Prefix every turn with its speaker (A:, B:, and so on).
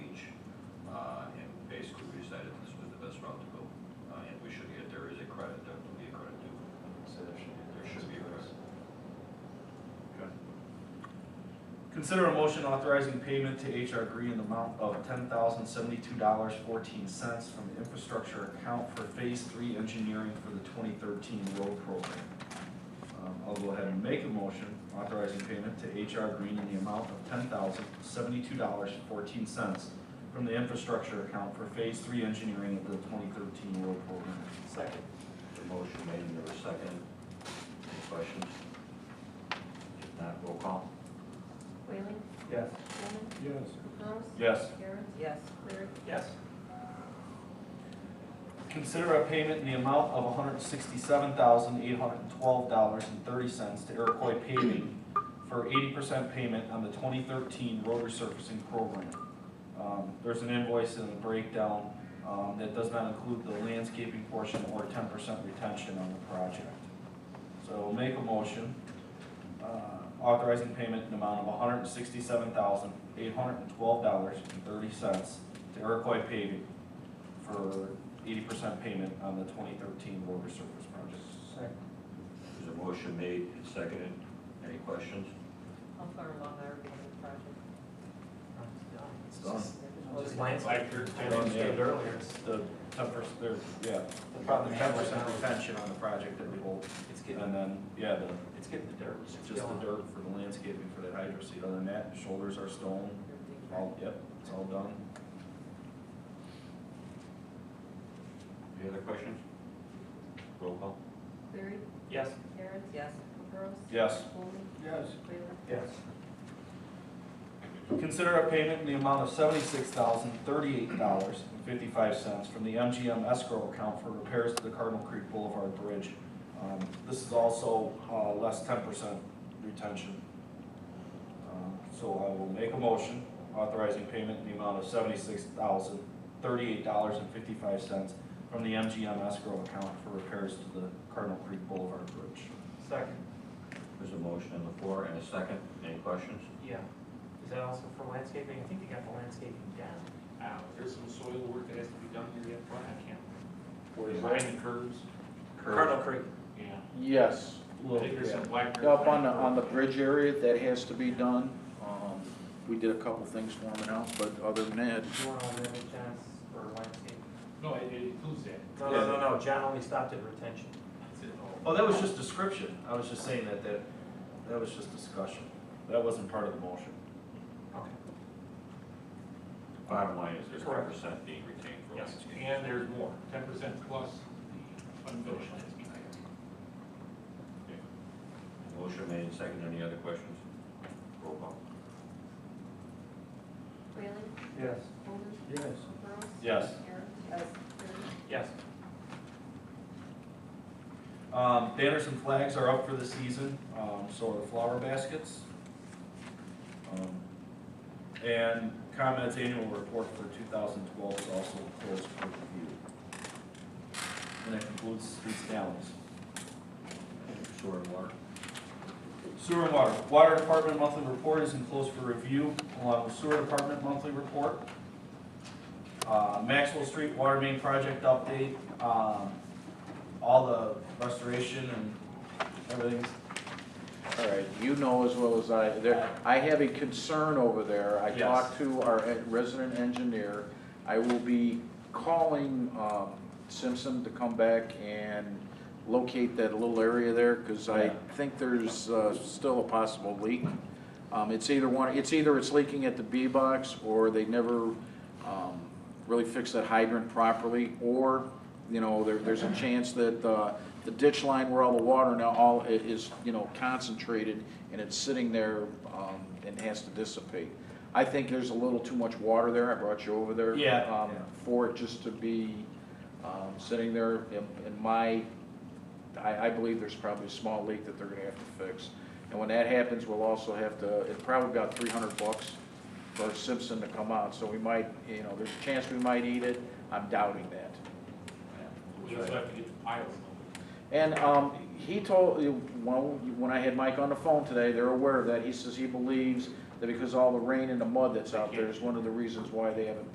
A: uh,
B: Consider a motion authorizing payment to HR Green in the amount of ten thousand seventy-two dollars fourteen cents from the infrastructure account for phase three engineering for the twenty thirteen road program. Um, I'll go ahead and make a motion authorizing payment to HR Green in the amount of ten thousand seventy-two dollars fourteen cents from the infrastructure account for phase three engineering of the twenty thirteen road program.
A: Second. The motion made and there was second. Any questions? If not, roll call.
C: Whaling,
D: Yes.
C: Coleman,
D: Yes.
C: Knowles,
B: Yes.
C: Aaron,
E: yes,
C: Cleary.
A: Yes.
B: Consider a payment in the amount of hundred and sixty-seven thousand, eight hundred and twelve dollars and thirty cents to Iroquois paving for eighty percent payment on the twenty thirteen road resurfacing program. Um, there's an invoice and a breakdown, um, that does not include the landscaping portion or ten percent retention on the project. So we'll make a motion, uh, authorizing payment in the amount of hundred and sixty-seven thousand, eight hundred and twelve dollars and thirty cents to Iroquois paving for eighty percent payment on the twenty thirteen road resurface project.
D: Second.
A: There's a motion made and seconded. Any questions?
E: how far along are we in the project?
B: It's done.
F: Well, Oh, Just landscape, you
B: Yeah.
F: stated earlier, it's,
B: The ten percent, there, yeah, the probably ten percent retention on the project that we hold,
F: it's
B: and
F: getting,
B: then, yeah, the,
F: it's getting the dirt.
B: it's just the dirt for the landscaping for that hydro seed, other than that, shoulders are stone, all, yep, it's all done.
A: Any other questions? Roll call.
C: Cleary,
F: Yes,
C: Aaron,
E: Yes,
C: Knowles,
B: Yes.
C: Coleman,
D: Yes.
C: Whaling,
D: Yes.
B: Consider a payment in the amount of seventy-six thousand, thirty-eight dollars and fifty-five cents from the MGM escrow account for repairs to the Cardinal Creek Boulevard Bridge. Um, This is also uh, less ten percent retention. Um, So I will make a motion authorizing payment in the amount of seventy-six thousand, thirty-eight dollars and fifty-five cents from the MGM escrow account for repairs to the Cardinal Creek Boulevard Bridge.
F: second,
A: There's a motion on the floor and a second. Any questions?
F: yeah. Is that also for landscaping? I think they got the landscaping down. Uh, there's some soil work that has to be done here yet, but I can't.
A: Where is
F: Behind the curves.
A: Curve.
F: Cardinal Creek. Yeah.
G: Yes,
F: I think there's some black. dirt
G: up on the,
F: behind
G: on the bridge area, that has to be done. Um, We did a couple things forming out, but other than that,
F: You want all the John's for landscape?
H: No, it it includes that.
F: No, no, no, no, John only stopped at retention.
H: That's it.
B: Oh, that was just description. I was just saying that, that, that was just discussion. That wasn't part of the motion.
F: Okay.
A: Bottom line is there's ten
F: Correct.
A: percent being retained for
H: Yes,
A: landscaping.
H: and there's more, ten percent plus the unfinished landscaping.
A: Motion made and seconded. Any other questions? Roll call.
C: Whaling,
D: Yes.
C: Coleman,
D: Yes.
C: Knowles.
B: Yes.
C: Aaron,
E: yes,
C: Cleary.
F: Yes.
B: Um, banners and flags are up for the season, um, so are the flower baskets. Um, And ComEd's annual report for two thousand twelve is also closed for review. And that concludes streets and alleys.
A: Sewer and water.
B: Sewer and water. Water Department monthly report is enclosed for review along with Sewer Department monthly report. Uh, Maxwell Street Water Main Project update, um, all the restoration and everything's
G: all right, you know as well as I, there, I have a concern over there. I
B: Yes.
G: talked to our en- resident engineer. I will be calling um, Simpson to come back and locate that little area there, because I
B: Yeah.
G: think there's uh, still a possible leak. Um, It's either one, it's either it's leaking at the B box, or they never um, really fixed that hydrant properly, or, you know, there, there's a chance that uh, the ditch line where all the water now all i- is, you know, concentrated, and it's sitting there um, and has to dissipate. I think there's a little too much water there, I brought you over there.
B: Yeah,
G: um,
B: yeah.
G: For it just to be um, sitting there, in in my I, I believe there's probably a small leak that they're gonna have to fix. And when that happens, we'll also have to, it probably about three hundred bucks for Simpson to come out, so we might, you know, there's a chance we might eat it, I'm doubting that.
H: We also have to get the piles moving.
G: And, um, he told, well, when I had Mike on the phone today, they're aware of that, he says he believes that because all the rain and the mud that's out there is one of the reasons why they haven't